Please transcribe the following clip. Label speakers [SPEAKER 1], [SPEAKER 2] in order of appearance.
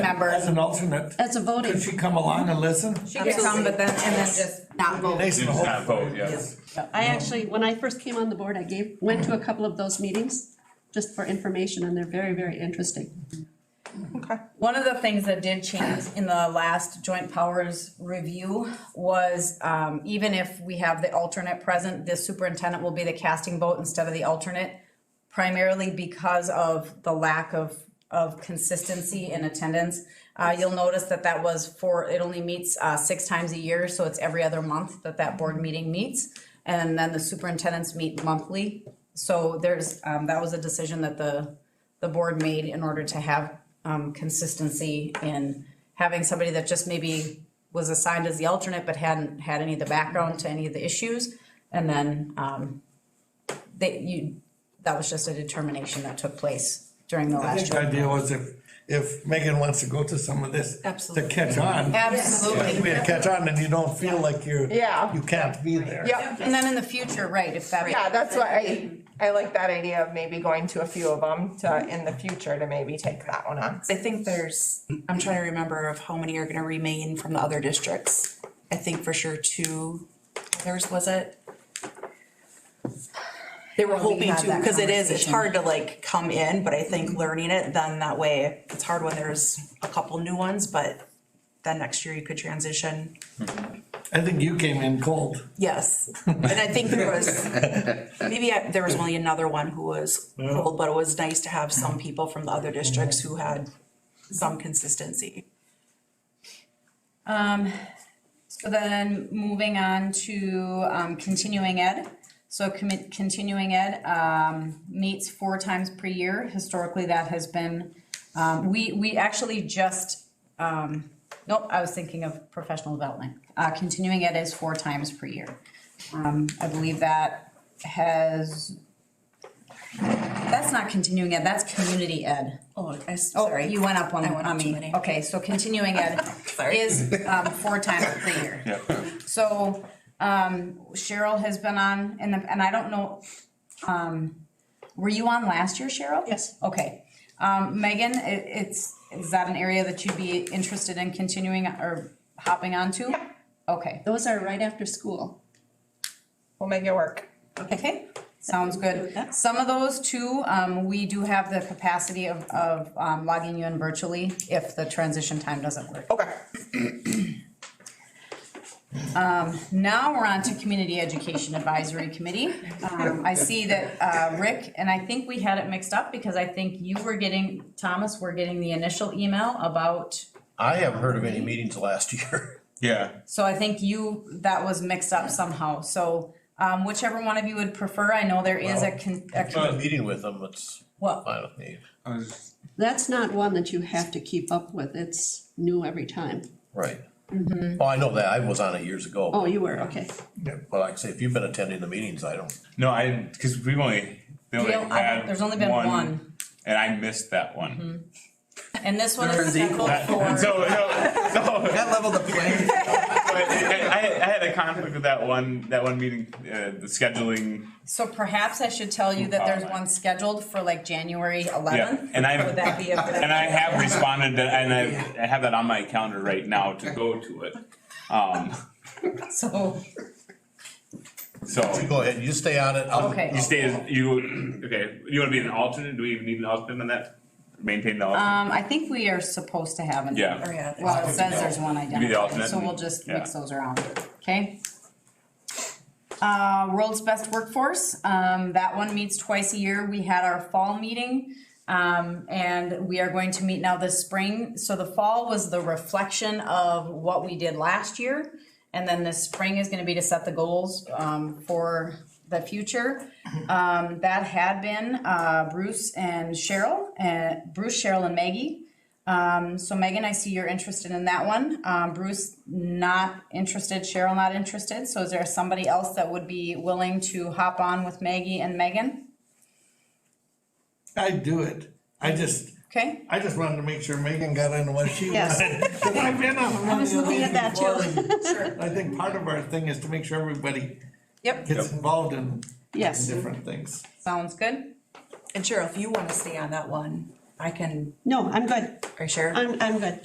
[SPEAKER 1] member,
[SPEAKER 2] As an alternate,
[SPEAKER 3] As a voting.
[SPEAKER 2] could she come along and listen?
[SPEAKER 4] She could come, but then, and then just.
[SPEAKER 1] not vote.
[SPEAKER 2] Nice and
[SPEAKER 5] Didn't have
[SPEAKER 2] hopeful.
[SPEAKER 5] vote, yes.
[SPEAKER 3] I actually, when I first came on the board, I gave, went to a couple of those meetings just for information and they're very, very interesting.
[SPEAKER 4] One of the things that did change in the last joint powers review was, um, even if we have the alternate present, the superintendent will be the casting vote instead of the alternate. Primarily because of the lack of, of consistency in attendance. Uh, you'll notice that that was for, it only meets, uh, six times a year, so it's every other month that that board meeting meets. And then the superintendents meet monthly. So there's, um, that was a decision that the, the board made in order to have um, consistency in having somebody that just maybe was assigned as the alternate but hadn't had any of the background to any of the issues. And then um, they, you, that was just a determination that took place during the
[SPEAKER 2] I
[SPEAKER 4] last
[SPEAKER 2] think
[SPEAKER 4] year.
[SPEAKER 2] the idea was if, if Megan wants to go to some of this to
[SPEAKER 4] Absolutely.
[SPEAKER 2] catch on. If we
[SPEAKER 4] Absolutely.
[SPEAKER 2] had catch on and you don't feel like you're,
[SPEAKER 6] Yeah.
[SPEAKER 2] you can't be there.
[SPEAKER 6] Yep.
[SPEAKER 4] And then in the future, right, if that.
[SPEAKER 6] Yeah, that's why I, I like that idea of maybe going to a few of them to, in the future to maybe take that one on.
[SPEAKER 7] I think there's, I'm trying to remember of how many are gonna remain from the other districts. I think for sure two, others was it? They were hoping
[SPEAKER 4] had
[SPEAKER 7] to,
[SPEAKER 4] that
[SPEAKER 7] because it is, it's
[SPEAKER 4] conversation.
[SPEAKER 7] hard to like come in, but I think learning it, then that way, it's hard when there's a couple new ones, but then next year you could transition.
[SPEAKER 2] I think you came in cold.
[SPEAKER 7] Yes, and I think there was, maybe I- there was only another one who was old, but it was nice to have some people from the other districts who had some consistency.
[SPEAKER 4] So then moving on to um, continuing ed. So commi- continuing ed um, meets four times per year. Historically, that has been, um, we, we actually just, um, nope, I was thinking of professional development. Uh, Continuing ed is four times per year. Um, I believe that has, that's not continuing ed, that's community ed.
[SPEAKER 7] Oh, I, s-
[SPEAKER 4] Oh,
[SPEAKER 7] sorry.
[SPEAKER 4] you went up one
[SPEAKER 7] I went up
[SPEAKER 4] on
[SPEAKER 7] too
[SPEAKER 4] me.
[SPEAKER 7] many.
[SPEAKER 4] Okay, so continuing ed is um, four times per year. So um, Cheryl has been on, and, the- and I don't know, um, were you on last year, Cheryl?
[SPEAKER 3] Yes.
[SPEAKER 4] Okay. Um, Megan, i- it's, is that an area that you'd be interested in continuing or hopping onto? Okay,
[SPEAKER 3] Those are right after school.
[SPEAKER 6] We'll make it work.
[SPEAKER 4] okay, sounds good. Some of those too, um, we do have the capacity of, of um, logging you in virtually if the transition time doesn't work.
[SPEAKER 6] Okay.
[SPEAKER 4] Um, Now we're on to Community Education Advisory Committee. Um, I see that, uh, Rick, and I think we had it mixed up because I think you were getting, Thomas, were getting the initial email about,
[SPEAKER 8] I haven't heard of any meetings last year.
[SPEAKER 5] Yeah,
[SPEAKER 4] so I think you, that was mixed up somehow. So, um, whichever one of you would prefer, I know there is a con, a
[SPEAKER 8] If I'm
[SPEAKER 4] con-
[SPEAKER 8] meeting with them, it's
[SPEAKER 4] well,
[SPEAKER 8] fine with me.
[SPEAKER 5] I was-
[SPEAKER 3] That's not one that you have to keep up with. It's new every time.
[SPEAKER 8] Right. Oh, I know that. I was on it years
[SPEAKER 3] Mm-hmm. Oh,
[SPEAKER 8] ago.
[SPEAKER 3] you were, okay.
[SPEAKER 8] But like I say, if you've been attending the meetings, I don't,
[SPEAKER 5] no, I, because we've only, they
[SPEAKER 4] you
[SPEAKER 5] only
[SPEAKER 4] know, I-
[SPEAKER 5] had
[SPEAKER 4] there's only been one. Mm-hmm.
[SPEAKER 5] And I missed that one.
[SPEAKER 4] And this one is
[SPEAKER 9] There is equal.
[SPEAKER 4] scheduled for.
[SPEAKER 5] So, no, so,
[SPEAKER 9] That leveled the playing.
[SPEAKER 5] but I, I I had a conflict with that one, that one meeting, uh, the scheduling.
[SPEAKER 4] So perhaps I should tell you that there's one scheduled for like January eleventh.
[SPEAKER 5] Oh, and I've-
[SPEAKER 4] Would that be a good?
[SPEAKER 5] And I have responded, to- and I, I have that on my calendar right now to go to it. Um,
[SPEAKER 4] So,
[SPEAKER 5] so,
[SPEAKER 8] go ahead, you stay on it. I'll-
[SPEAKER 4] Okay.
[SPEAKER 5] you stay, as- you, okay, you wanna be an alternate? Do we even need an alternate on that? Maintain the alternate?
[SPEAKER 4] um, I think we are supposed to have an.
[SPEAKER 5] Yeah.
[SPEAKER 7] Or yeah,
[SPEAKER 4] Well, it says there's one
[SPEAKER 5] be the
[SPEAKER 4] identified,
[SPEAKER 5] alternate
[SPEAKER 4] so we'll
[SPEAKER 5] and-
[SPEAKER 4] just
[SPEAKER 5] yeah.
[SPEAKER 4] mix those around, okay? Uh, World's Best Workforce, um, that one meets twice a year. We had our fall meeting. Um, and we are going to meet now this spring. So the fall was the reflection of what we did last year. And then the spring is gonna be to set the goals, um, for the future. Um, that had been, uh, Bruce and Cheryl, and Bruce, Cheryl and Maggie. Um, so Megan, I see you're interested in that one. Um, Bruce, not interested. Cheryl, not interested. So is there somebody else that would be willing to hop on with Maggie and Megan?
[SPEAKER 2] I'd do it. I just,
[SPEAKER 4] Okay,
[SPEAKER 2] I just wanted to make sure Megan got in what she
[SPEAKER 3] Yes.
[SPEAKER 2] wanted. 'Cause I've been on one of
[SPEAKER 3] was
[SPEAKER 2] the
[SPEAKER 3] looking at that too.
[SPEAKER 2] meetings before, and I think part of our thing is to make sure everybody
[SPEAKER 4] Yep.
[SPEAKER 2] gets involved in
[SPEAKER 3] Yes.
[SPEAKER 2] different things.
[SPEAKER 4] sounds good.
[SPEAKER 7] And Cheryl, if you wanna stay on that one, I can,
[SPEAKER 3] No, I'm good.
[SPEAKER 7] are you sure?
[SPEAKER 3] I'm, I'm good.